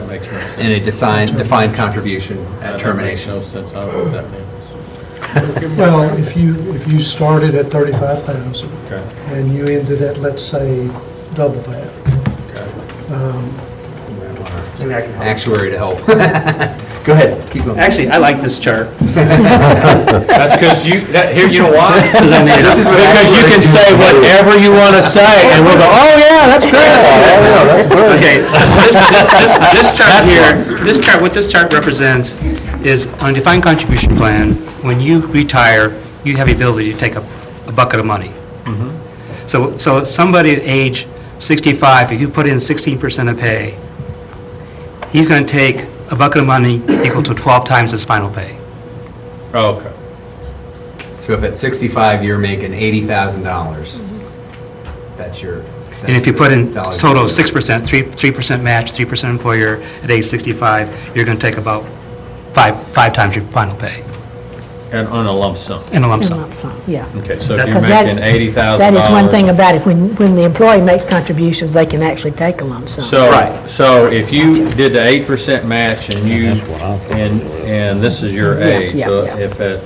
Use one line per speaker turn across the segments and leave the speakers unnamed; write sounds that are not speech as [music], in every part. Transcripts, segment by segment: That makes no sense.
in a design, defined contribution at
That
termination.
makes no sense. I don't know what that means.
Well, if you, if you started at 35,000
Okay,
and you ended at, let's say, double that,
okay.
um,
Maybe I can help.
Actuary to help. [laughs] Go ahead, keep going.
Actually, I like this chart.
[laughs] That's because you, that, here, you know why?
This is what
Because you
[laughs]
can say whatever you want to say, and we'll go, oh, yeah, that's great.
Okay, this, this, this chart here, this chart, what this chart represents is on a defined contribution plan, when you retire, you have the ability to take a, a bucket of money. So, so somebody at age 65, if you put in 16% of pay, he's going to take a bucket of money equal to 12 times his final pay.
Oh, Okay.
So if at 65, you're making $80,000, that's your.
And if you put in
that's the
total of
dollars.
6%, 3, 3% match, 3% employer, at age 65, you're going to take about five, five times your final pay
And on a lump sum.
in a lump
In
sum.
lump sum, yeah.
Okay, so if you're
Because that-
making eighty thousand
That
dollars.
is one thing about it, when, when the employee makes contributions, they can actually take a lump sum.
So, so if you did the eight percent match and you, and, and this is your
Yeah,
age,
yeah,
so
yeah.
if at,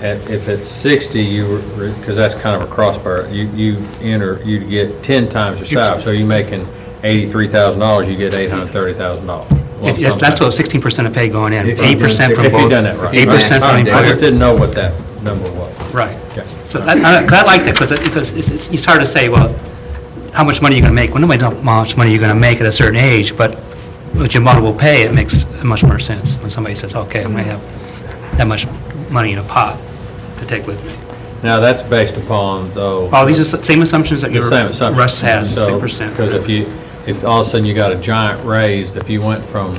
at, if at sixty, you were, because that's kind of a crossbar, you, you enter, you'd get ten times your salary, so you're making eighty-three thousand dollars, you get eight hundred thirty thousand dollars.
If- if- That's total 16% of pay going in,
If you're doing
8% from
If
both.
you done that right.
8%
All
from
right, I just
employer.
didn't know what that number was.
Right.
Okay.
So I I- 'cause I like that, 'cause it- because it's- it's it's hard to say, well, how much money are you going to make? Well, nobody knows how much money you're going to make at a certain age, but with your multiple pay, it makes much more sense when somebody says, okay, I'm going to have that much money in a pot to take with me.
Now, that's based upon, though.
Oh, these are the same assumptions that
The
your
same assumption.
Russ has, six percent.
Because if you, if all of a sudden you got a giant raise, if you went from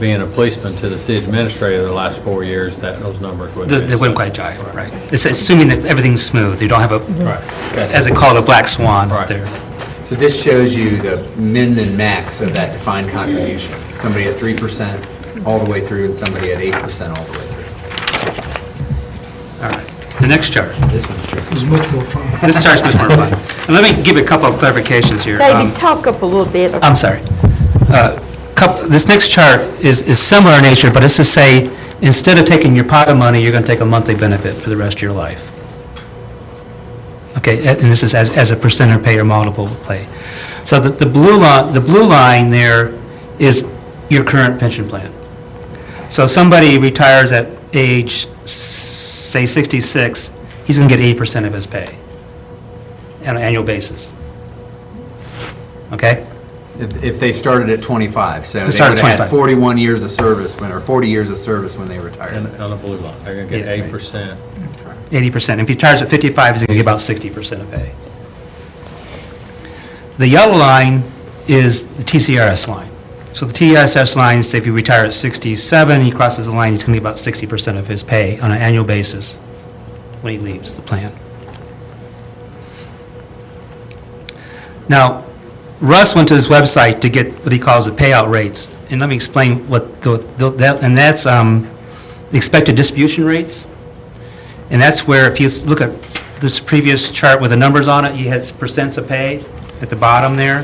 being a policeman to the city administrator the last four years, that, those numbers would be.
They wouldn't quite jive, right? It's assuming that everything's smooth, you don't have a,
Right, okay.
as they call it, a black swan
Right.
up there.
So this shows you the min and max of that defined contribution. Somebody at 3% all the way through and somebody at 8% all the way through.
All right, the next chart.
This one's tricky.
it's much more fun.
This chart's much more fun. And let me give a couple of clarifications here. Um,
David, talk up a little bit.
I'm sorry. Uh, coup- This next chart is is similar in nature, but it's to say, instead of taking your pot of money, you're going to take a monthly benefit for the rest of your life. Okay, a- and this is as as a percent or pay or multiple pay. So the the blue line, the blue line there is your current pension plan. So if somebody retires at age, s- say 66, he's going to get 80% of his pay on an annual basis. Okay?
If if they started at 25, so they would
started
have
at
had
25.
41 years of service when, or 40 years of service when they retired.
And on the blue line, they're gonna get
Yeah, right.
eight percent.
eighty percent. If he retires at fifty-five, he's gonna get about sixty percent of pay. The yellow line is the TCRS line. So the TCRS line, say if you retire at sixty-seven, he crosses the line, he's gonna get about sixty percent of his pay on an annual basis when he leaves the plan. Now, Russ went to his website to get what he calls the payout rates, and let me explain what, the the- that and that's um, expected distribution rates. And that's where, if you s- look at this previous chart with the numbers on it, you had percents of pay at the bottom there.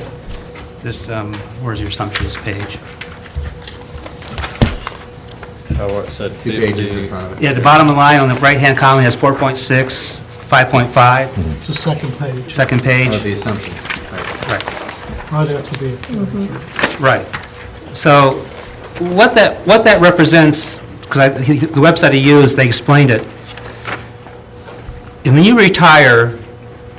This, um, where's your assumptions page?
So it said
Two pages in
fifty.
front of it.
Yeah, the bottom line on the right-hand column has 4.6, 5.5,
It's the second page,
second
Oh,
page.
the assumptions. Right.
Right.
right after the,
Right. So what that, what that represents, because the website he used, they explained it. And When you retire,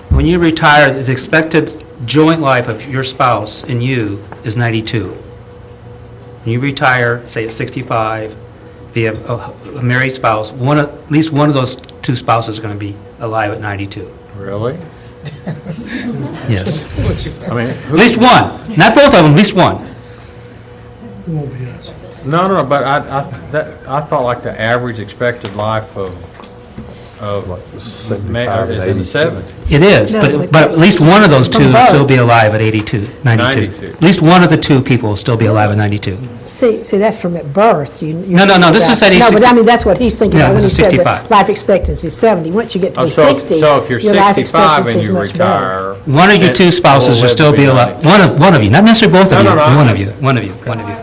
when you retire, the expected joint life of your spouse and you is 92. When you retire, say at 65, if you have a a married spouse, one, of- at least one of those two spouses is going to be alive at 92.
Really?
Yes.
I mean,
At least one, not both of them, at least one.
it won't be us.
no, no, but I, I, that, I thought like the average expected life of, of, ma-
75 to
is in the
82.
seventy.
It is,
No,
but,
but
but at least one of those two will
both.
still be alive at 82, 92.
92.
At least one of the two people will still be alive at 92.
See, see, that's from at birth, you.
No, no, no, this is at age
No, but
60.
I mean, that's what he's thinking
No,
about when he
this is
said that
65.
life expectancy is 70. Once you get to
Oh,
be
so if-
60,
So if you're
your life
65
expectancy
and
is
you
much better.
retire.
One of your
it
two spouses
will
will
live
still
to
be alive,
90.
one of, one of you, not necessarily both of
No,
you,
no, no, I
one of you,
understand.
one of you, one of you.